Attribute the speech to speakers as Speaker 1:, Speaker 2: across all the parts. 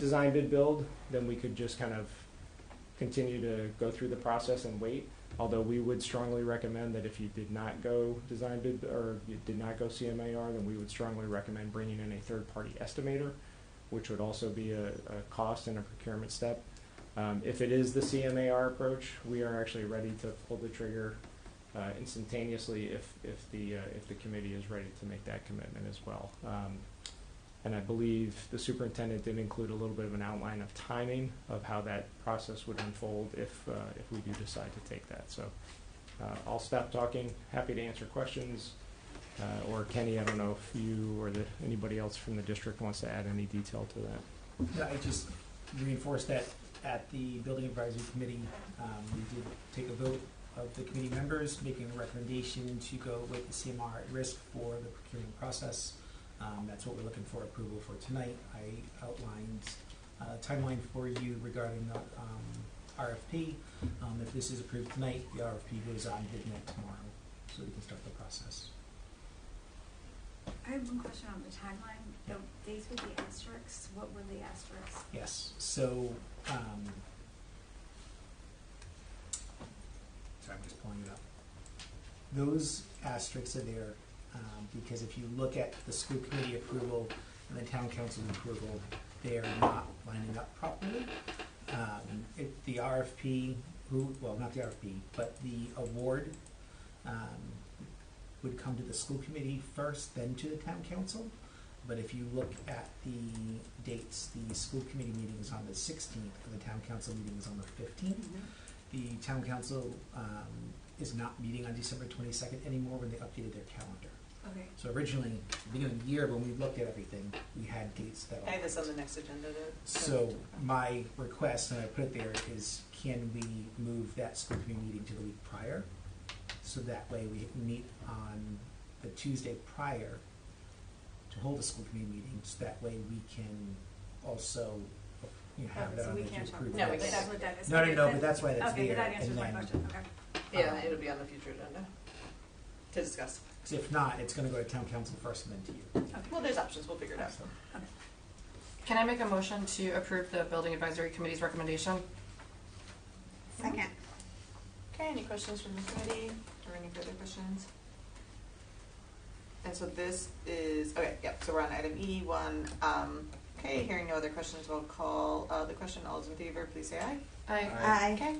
Speaker 1: design bid build, then we could just kind of continue to go through the process and wait. Although we would strongly recommend that if you did not go design bid, or you did not go CMAR, then we would strongly recommend bringing in a third-party estimator, which would also be a, a cost and a procurement step. Um, if it is the CMAR approach, we are actually ready to pull the trigger uh, instantaneously if, if the, uh, if the committee is ready to make that commitment as well. Um, and I believe the superintendent did include a little bit of an outline of timing of how that process would unfold if, uh, if we do decide to take that. So uh, I'll stop talking, happy to answer questions. Uh, Or Kenny, I don't know if you or the, anybody else from the district wants to add any detail to that.
Speaker 2: Yeah, I just reinforced that at the building advisory committee, um, we did take a vote of the committee members, making a recommendation to go with the CMR at risk for the procurement process. Um, that's what we're looking for approval for tonight. I outlined a timeline for you regarding the, um, RFP. Um, if this is approved tonight, the RFP goes on midnight tomorrow, so we can start the process.
Speaker 3: I have one question on the timeline, the dates with the asterisks, what were the asterisks?
Speaker 2: Yes, so, um, sorry, I'm just pulling it up. Those asterisks are there, um, because if you look at the school committee approval and the town council approval, they are not lining up properly. Um, it, the RFP, who, well, not the RFP, but the award, um, would come to the school committee first, then to the town council. But if you look at the dates, the school committee meeting is on the sixteenth, and the town council meeting is on the fifteenth. The town council, um, is not meeting on December twenty-second anymore when they updated their calendar.
Speaker 3: Okay,
Speaker 2: So originally, beginning of the year, when we looked at everything, we had dates that.
Speaker 4: I have this on the next agenda to.
Speaker 2: So my request, and I put it there, is can we move that school committee meeting to the week prior? So that way we meet on the Tuesday prior to hold a school committee meeting, so that way we can also, you know, have
Speaker 3: Okay,
Speaker 2: that
Speaker 3: so
Speaker 2: on
Speaker 3: we
Speaker 2: there to
Speaker 3: can't talk
Speaker 2: approve.
Speaker 3: about
Speaker 4: No,
Speaker 3: that,
Speaker 4: we
Speaker 2: this.
Speaker 3: that's
Speaker 4: can't.
Speaker 3: what that is.
Speaker 2: No, no, no,
Speaker 3: Okay,
Speaker 2: but that's why that's
Speaker 3: Okay,
Speaker 2: there,
Speaker 3: but that answers
Speaker 2: and
Speaker 3: my
Speaker 2: then,
Speaker 3: question, okay.
Speaker 4: Yeah, it'll be on the future agenda to discuss.
Speaker 2: 'cause if not, it's gonna go to town council first and then to you.
Speaker 4: Well, there's options, we'll figure it out.
Speaker 2: So,
Speaker 5: Can I make a motion to approve the building advisory committee's recommendation?
Speaker 3: Second.
Speaker 4: Okay, any questions from the committee or any further questions? And so this is, okay, yep, so we're on item E one. Um, okay, hearing no other questions, we'll call, uh, the question. All those in favor, please say aye.
Speaker 5: I
Speaker 4: Okay.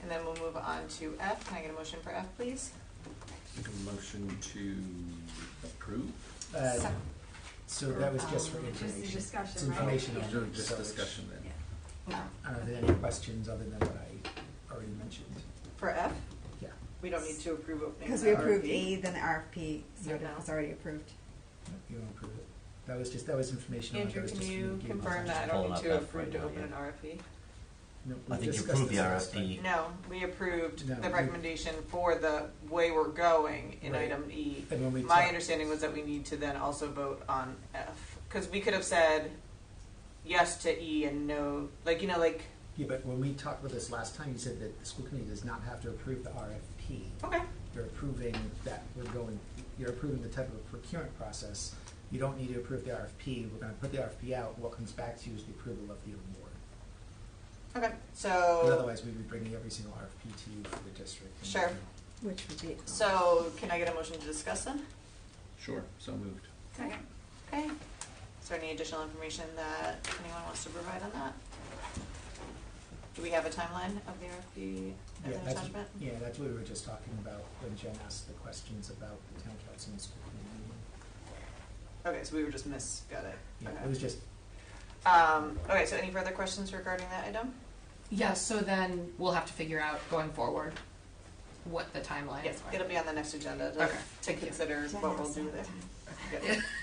Speaker 4: And then we'll move on to F. Can I get a motion for F, please?
Speaker 6: Make a motion to approve?
Speaker 2: uh, So that was just for
Speaker 6: Um,
Speaker 3: Just the
Speaker 2: information. It's
Speaker 3: discussion, right?
Speaker 2: information
Speaker 3: Yeah.
Speaker 2: only,
Speaker 6: Just
Speaker 2: so-
Speaker 6: discussion then.
Speaker 5: No.
Speaker 2: I don't know if there's any questions other than what I already mentioned.
Speaker 4: For F?
Speaker 2: Yeah.
Speaker 4: We don't need to approve opening.
Speaker 7: Because
Speaker 4: the
Speaker 7: we approved
Speaker 4: RFP.
Speaker 7: A, then RFP, so
Speaker 4: Yep.
Speaker 7: that was already approved.
Speaker 2: You don't approve it. That was just, that was information. on it. That
Speaker 4: Andrew,
Speaker 2: was
Speaker 4: can
Speaker 2: just
Speaker 4: you
Speaker 2: communicating
Speaker 4: confirm
Speaker 2: with us.
Speaker 4: that I don't
Speaker 6: Pulling
Speaker 4: need
Speaker 6: up
Speaker 4: to
Speaker 6: F
Speaker 4: approve to
Speaker 6: right now,
Speaker 4: open an
Speaker 6: yeah.
Speaker 4: RFP?
Speaker 2: No,
Speaker 6: I
Speaker 2: we
Speaker 6: think you
Speaker 2: discussed
Speaker 6: approved the
Speaker 2: this last
Speaker 6: RFP.
Speaker 2: time.
Speaker 4: No, we approved
Speaker 2: No,
Speaker 4: the
Speaker 2: we-
Speaker 4: recommendation for the way we're going in
Speaker 2: Right.
Speaker 4: item E.
Speaker 2: And when we
Speaker 4: My
Speaker 2: talked-
Speaker 4: understanding was that we need to then also vote on F, because we could have said yes to E and no, like, you know, like,
Speaker 2: Yeah, but when we talked about this last time, you said that the school committee does not have to approve the RFP.
Speaker 4: okay,
Speaker 2: You're approving that we're going, you're approving the type of procurement process. You don't need to approve the RFP. We're gonna put the RFP out. What comes back to you is the approval of the award.
Speaker 4: okay,
Speaker 2: But
Speaker 4: so,
Speaker 2: otherwise, we'd be bringing every single RFP to you for the district. and-
Speaker 4: Oh. Sure.
Speaker 7: Which would be.
Speaker 4: so can I get a motion to discuss then?
Speaker 6: Sure, so moved.
Speaker 3: Second.
Speaker 4: Okay, is there any additional information that anyone wants to provide on that? Do we have a timeline of the RFP
Speaker 2: Yeah,
Speaker 4: and the
Speaker 2: that's-
Speaker 4: attachment?
Speaker 2: Yeah, that's what we were just talking about when Jen asked the questions about the town council and school committee meeting.
Speaker 4: Okay, so we were just miss, got it,
Speaker 2: Yeah,
Speaker 4: okay.
Speaker 2: it was just
Speaker 4: Um, okay, so any further questions regarding that item?
Speaker 5: Yeah, so then we'll have to figure out going forward what the timeline is.
Speaker 4: Yes, it'll be on the next agenda to,
Speaker 5: Okay,
Speaker 4: to
Speaker 5: thank you.
Speaker 4: consider
Speaker 7: Jen
Speaker 4: what we'll
Speaker 7: asked
Speaker 4: do
Speaker 7: that time.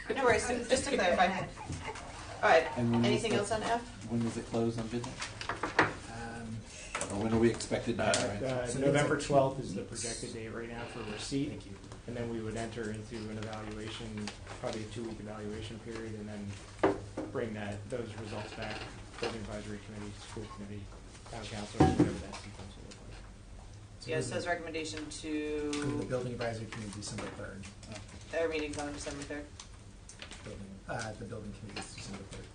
Speaker 4: there. No worries, just to clarify. Alright,
Speaker 6: And when is
Speaker 4: anything
Speaker 6: the-
Speaker 4: else on F?
Speaker 6: When does it close on midnight?
Speaker 2: Um,
Speaker 6: Or when are we expected to
Speaker 1: Uh,
Speaker 6: have it?
Speaker 1: uh,
Speaker 2: So
Speaker 1: November
Speaker 2: these are
Speaker 1: twelfth is
Speaker 2: two
Speaker 1: the
Speaker 2: weeks.
Speaker 1: projected date right now for receipt.
Speaker 2: Thank you.
Speaker 1: And then we would enter into an evaluation, probably a two-week evaluation period, and then bring that, those results back, building advisory committee, school committee, town council, or whatever that sequence will look like.
Speaker 2: so
Speaker 4: Yeah, it
Speaker 2: this
Speaker 4: says
Speaker 2: is
Speaker 4: recommendation
Speaker 2: for The
Speaker 4: to,
Speaker 2: building advisory committee, December third, Uh,
Speaker 4: our meeting's on December third.
Speaker 2: building, uh, the building committee is December third.
Speaker 4: Oh.